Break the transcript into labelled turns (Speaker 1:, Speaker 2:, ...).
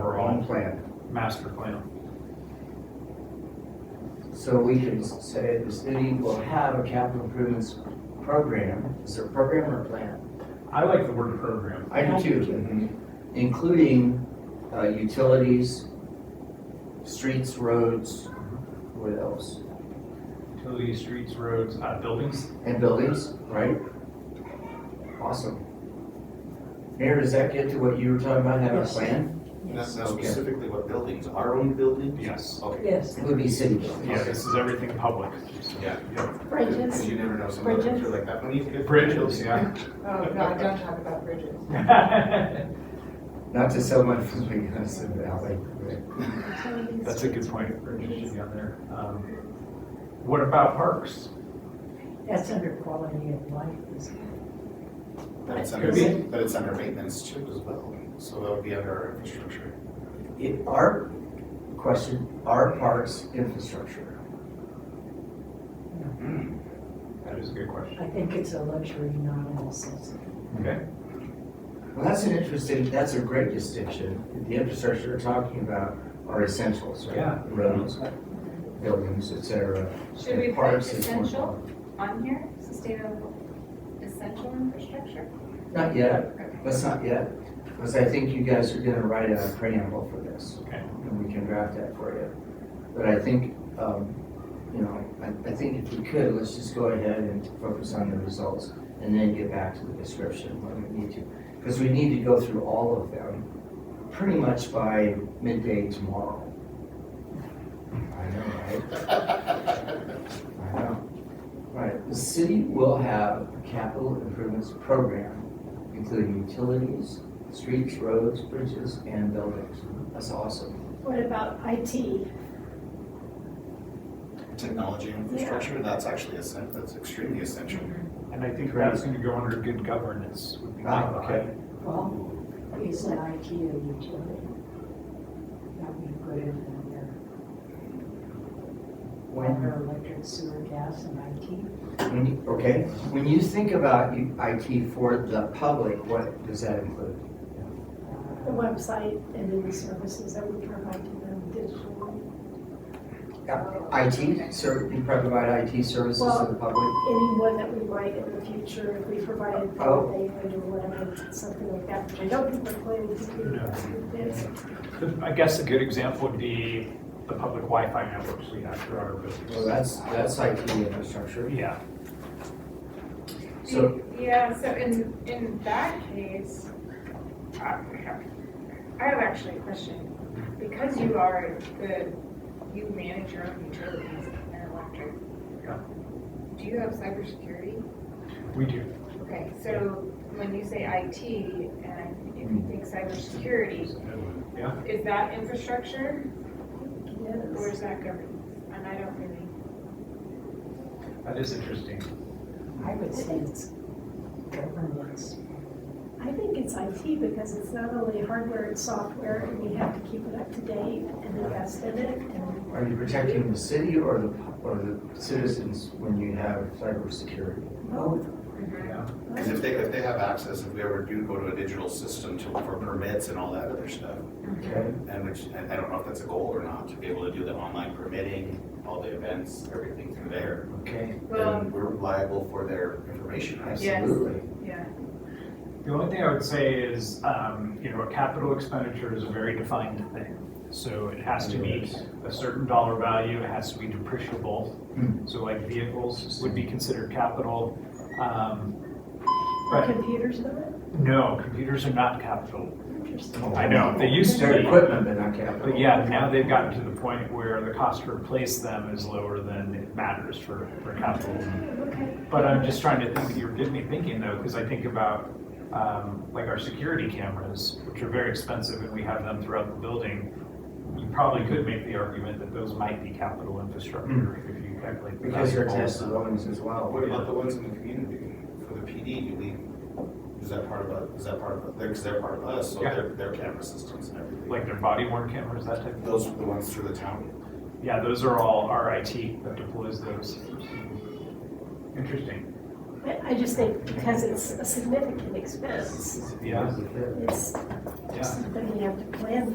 Speaker 1: plan,
Speaker 2: master plan.
Speaker 1: so we can say the city will have a capital improvements program, is there a program or plan?
Speaker 2: I like the word program.
Speaker 1: I do too. mhm. Including, uh, utilities, streets, roads, what else?
Speaker 2: Utilities, streets, roads, uh, buildings.
Speaker 1: And buildings, right? Awesome. Mayor, does that get to what you were talking about, having a
Speaker 3: Yes.
Speaker 1: plan?
Speaker 3: Yes.
Speaker 4: Not not specifically what buildings, our own buildings?
Speaker 2: Yes.
Speaker 4: Okay.
Speaker 3: Yes.
Speaker 1: It would be city buildings.
Speaker 2: Yeah, this is everything public.
Speaker 4: Yeah.
Speaker 2: Yep.
Speaker 4: Because you never know, some of them
Speaker 3: Bridges.
Speaker 4: are like that. When you get-
Speaker 2: Bridges, yeah.
Speaker 5: Oh, God, don't talk about bridges.
Speaker 2: That's
Speaker 1: Not to sell my family house in the valley. but-
Speaker 2: a good point. Bridges should be on there. Um, What about parks?
Speaker 3: That's under quality of life, isn't it?
Speaker 4: But it's
Speaker 2: Could
Speaker 4: under,
Speaker 2: be.
Speaker 4: but it's under maintenance too as well, so that would be under our infrastructure.
Speaker 1: It, our, question, our parks infrastructure.
Speaker 2: That is a good question.
Speaker 3: I think it's a luxury, not a necessity.
Speaker 2: Okay.
Speaker 1: Well, that's an interesting, that's a great distinction. The infrastructure we're talking about are essentials, right?
Speaker 2: Yeah.
Speaker 1: Roads, buildings, et cetera.
Speaker 6: Should we
Speaker 1: And
Speaker 6: put
Speaker 1: parks is more-
Speaker 6: essential on here, sustainable, essential infrastructure?
Speaker 1: Not yet, that's not yet, because I think you guys are gonna write a preamble for this.
Speaker 2: Okay.
Speaker 1: And we can draft that for you. But I think, um, you know, I, I think if we could, let's just go ahead and focus on the results and then get back to the description when we need to. Because we need to go through all of them pretty much by midday tomorrow. I know, right? I know. Right, the city will have a capital improvements program, including utilities, streets, roads, bridges, and buildings. That's awesome.
Speaker 7: What about IT?
Speaker 4: Technology infrastructure, that's actually essen that's extremely essential.
Speaker 2: And I think that's going to go under good governance would be my
Speaker 1: Ah, okay.
Speaker 3: Well, is an IT a utility? That we put in under
Speaker 1: When,
Speaker 3: water, electric, sewer, gas, and IT.
Speaker 1: when, you- okay, when you think about you- IT for the public, what does that include?
Speaker 7: The
Speaker 3: Uh,
Speaker 7: website and then the services that we provide to them digitally,
Speaker 1: IT, ser- you provide IT services to the public?
Speaker 7: anyone that we might in the future, if we provided
Speaker 1: Oh.
Speaker 7: broadband or whatever, something like that, which I don't think we're planning to do.
Speaker 2: No.
Speaker 7: but it's-
Speaker 2: I guess a good example would be the public Wi-Fi networks we have throughout our
Speaker 1: Well,
Speaker 2: business.
Speaker 1: that's, that's IT infrastructure.
Speaker 2: Yeah,
Speaker 1: So,
Speaker 6: Yeah, so in, in that case, I I have actually a question. Because you are the, you manage your own utilities and electric.
Speaker 2: Yeah.
Speaker 6: Do you have cybersecurity?
Speaker 2: we do.
Speaker 6: Okay, so when you say IT and if you think cybersecurity,
Speaker 2: Yeah.
Speaker 6: is that infrastructure or
Speaker 7: Yes.
Speaker 6: is that governance? And I don't really.
Speaker 2: That is interesting.
Speaker 3: I would say it's governance.
Speaker 7: I think it's IT because it's not only hardware, it's software, and we have to keep it up to date and invest in it. and-
Speaker 1: are you protecting the city or the, pu- or the citizens when you have cybersecurity?
Speaker 7: oh,
Speaker 3: Both.
Speaker 6: Oh.
Speaker 2: Yeah.
Speaker 4: Because if they, if they have access, if we ever do go to a digital system to, for permits and all that other stuff,
Speaker 1: Okay,
Speaker 4: and which, and I don't know if that's a goal or not, to be able to do the online permitting, all the events, everything through there,
Speaker 1: okay,
Speaker 6: Well,
Speaker 4: then we're liable for their information, right?
Speaker 6: Yeah.
Speaker 1: absolutely.
Speaker 6: yeah.
Speaker 2: The only thing I would say is, um, you know, a capital expenditure is a very defined thing. So it has to meet a certain dollar value, it has to be depreciable. So like vehicles would be considered capital. Um,
Speaker 7: Are
Speaker 2: But
Speaker 7: computers not?
Speaker 2: no, computers are not capital.
Speaker 7: Interesting.
Speaker 2: I know, they used to
Speaker 1: Their
Speaker 2: be.
Speaker 1: equipment, but not capital.
Speaker 2: But yeah, now they've gotten to the point where the cost to replace them is lower than it matters for, for capital.
Speaker 7: Okay.
Speaker 2: But I'm just trying to think, you're getting me thinking though, because I think about, um, like our security cameras, which are very expensive and we have them throughout the building. You probably could make the argument that those might be capital infrastructure if you calculate. the
Speaker 1: Because you're
Speaker 2: value.
Speaker 1: attached to buildings as well.
Speaker 4: What about the ones in the community? For the PD, do we, is that part of, a- is that part of, because they're part of us, so
Speaker 2: Yeah.
Speaker 4: their, their camera systems and everything.
Speaker 2: Like their body worn cameras, that type of,
Speaker 4: Those are the ones through the town.
Speaker 2: yeah, those are all our IT that deploys those. Interesting,
Speaker 7: I I just think because it's a significant expense,
Speaker 2: yeah,
Speaker 7: it's
Speaker 2: yeah.
Speaker 7: something you have to plan